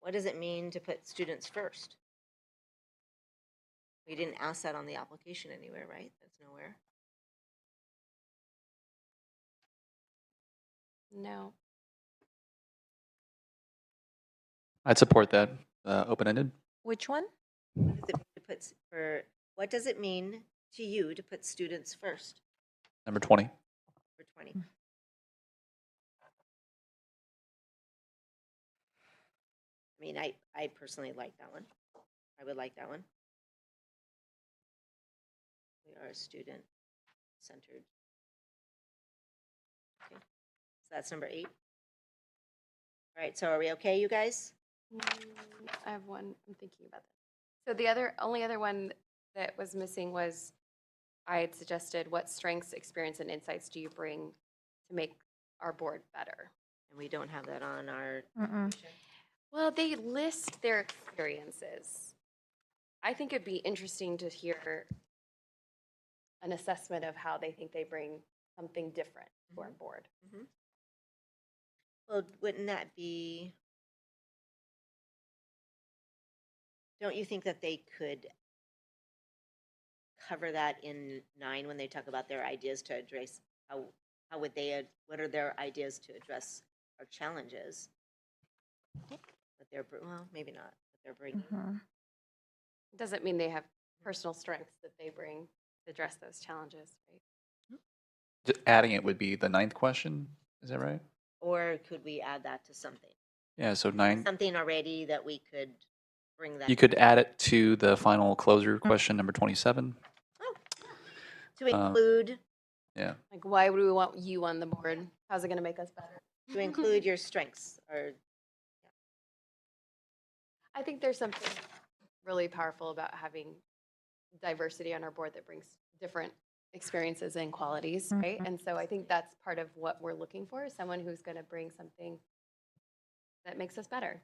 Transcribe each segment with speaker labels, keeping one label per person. Speaker 1: What does it mean to put students first? We didn't ask that on the application anywhere, right? That's nowhere.
Speaker 2: No.
Speaker 3: I'd support that, uh, open-ended.
Speaker 2: Which one?
Speaker 1: What does it mean to put s- for, what does it mean to you to put students first
Speaker 3: Number 20.
Speaker 1: for twenty? I mean, I, I personally like that one. I would like that one. We are a student-centered. Okay, So that's number eight. All right, so are we okay, you guys?
Speaker 2: Mm, I have one. I'm thinking about that. So the other, only other one that was missing was I had suggested what strengths, experience, and insights do you bring to make our board better?
Speaker 1: And we don't have that on our,
Speaker 2: Well, they list their experiences. I think it'd be interesting to hear an assessment of how they think they bring something different to our board.
Speaker 1: well, wouldn't that be? Don't you think that they could cover that in nine when they talk about their ideas to address, how, how would they, ad- what are their ideas to address our challenges? But they're, br- well, maybe not, but they're bringing,
Speaker 2: Doesn't mean they have personal strengths that they bring to address those challenges, right?
Speaker 3: Just adding it would be the ninth question, is that right?
Speaker 1: or could we add that to something?
Speaker 3: Yeah, so nine,
Speaker 1: Something already that we could bring that. Mm.
Speaker 3: you could add it to the final closer question, number 27.
Speaker 1: To
Speaker 3: uh,
Speaker 1: include.
Speaker 2: Like, why would we want you on the board? How's it going to make us better?
Speaker 1: to include your strengths or
Speaker 2: I think there's something really powerful about having diversity on our board that brings different experiences and qualities, right?
Speaker 1: Mm-hmm.
Speaker 4: Mhm.
Speaker 2: And so I think that's part of what we're looking for is someone who's going to bring something that makes us better.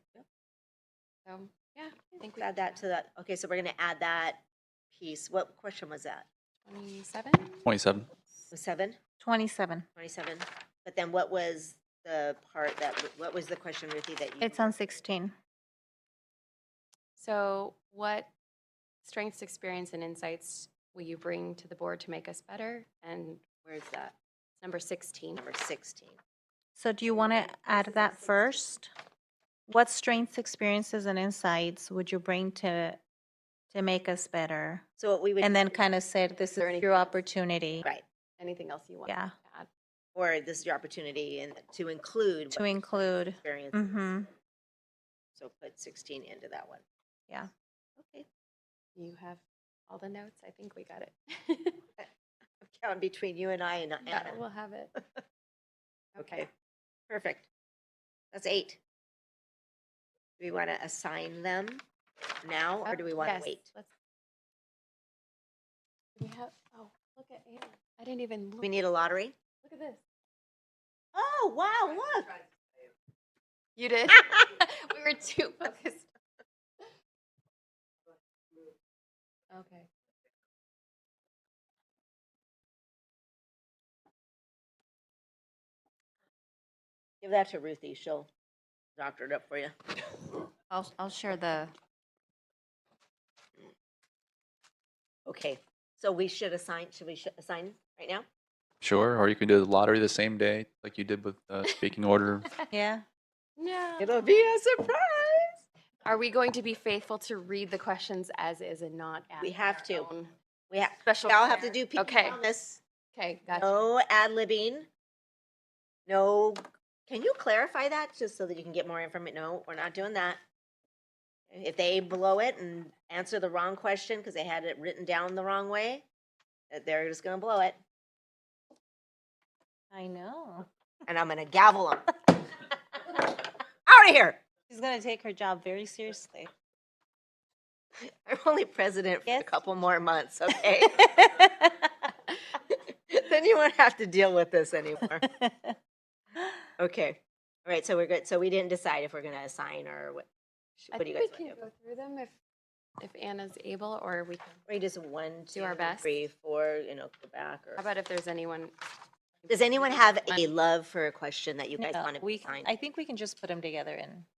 Speaker 2: So, yeah, I think we
Speaker 1: add that to that. Okay, so we're gonna add that piece. What question was that?
Speaker 2: 27.
Speaker 3: 27.
Speaker 1: Was Seven,
Speaker 4: 27.
Speaker 1: twenty-seven? But then what was the part that, what was the question, Ruthie, that you?
Speaker 4: It's on 16.
Speaker 2: So, what strengths, experience, and insights will you bring to the board to make us better? And
Speaker 1: Where's that?
Speaker 2: number 16.
Speaker 1: Number sixteen.
Speaker 4: So do you want to add that first? What strengths, experiences, and insights would you bring to, to make us better?
Speaker 1: So what we would.
Speaker 4: And then kind of said, this
Speaker 2: Is there
Speaker 4: is
Speaker 2: anything
Speaker 4: your
Speaker 2: else?
Speaker 4: opportunity
Speaker 1: Right,
Speaker 2: Anything else you want
Speaker 4: Yeah.
Speaker 2: to add?
Speaker 1: or this is your opportunity and to include.
Speaker 4: to
Speaker 1: what
Speaker 4: include.
Speaker 1: Experience.
Speaker 4: Mm-hmm.
Speaker 1: So put sixteen into that one.
Speaker 4: Yeah.
Speaker 1: Okay,
Speaker 2: You have all the notes. I think we got it.
Speaker 1: I'm counting between you and I and Anna.
Speaker 2: We'll have it.
Speaker 1: Okay, perfect. That's eight. Do we want to assign them now, or do we want to
Speaker 2: Yes,
Speaker 1: wait?
Speaker 2: let's- Do We have, oh, look at Anna. I didn't even
Speaker 1: Do
Speaker 2: look.
Speaker 1: We need a lottery?
Speaker 2: Look at this.
Speaker 1: Oh, wow, look.
Speaker 2: You did? We were too focused. Okay.
Speaker 1: Give that to Ruthie, she'll doctor it up for you.
Speaker 5: I'll, I'll share the,
Speaker 1: Okay, so we should assign, should we sh- assign right now?
Speaker 3: Sure, or you can do the lottery the same day, like you did with uh, speaking order.
Speaker 4: Yeah.
Speaker 2: No.
Speaker 1: It'll be a surprise.
Speaker 2: Are we going to be faithful to read the questions as is and not add?
Speaker 1: We have
Speaker 2: our
Speaker 1: to.
Speaker 2: own?
Speaker 1: We have,
Speaker 2: Special.
Speaker 1: we all have to
Speaker 2: care?
Speaker 1: do PE
Speaker 2: Okay,
Speaker 1: on this.
Speaker 2: okay, gotcha.
Speaker 1: No ad-libbing. No, can you clarify that just so that you can get more information? No, we're not doing that. If they blow it and answer the wrong question because they had it written down the wrong way, that they're just gonna blow it.
Speaker 4: I know.
Speaker 1: And I'm gonna gavel them. Out of here!
Speaker 4: She's going to take her job very seriously.
Speaker 1: I'm only president for a
Speaker 4: Yes.
Speaker 1: couple more months, okay? Then you won't have to deal with this anymore. Okay. All right, so we're good. So we didn't decide if we're gonna assign or what. sh-
Speaker 2: I
Speaker 1: What do you
Speaker 2: think
Speaker 1: guys
Speaker 2: we
Speaker 1: want to
Speaker 2: can
Speaker 1: do?
Speaker 2: go through them if, if Anna's able, or we can,
Speaker 1: We just one, two,
Speaker 2: our best.
Speaker 1: three, four, you know, go back or.
Speaker 2: how about if there's anyone?
Speaker 1: Does anyone have a love for a question that you guys
Speaker 4: No,
Speaker 1: want to
Speaker 4: we,
Speaker 1: find?
Speaker 4: I think we can just put them together and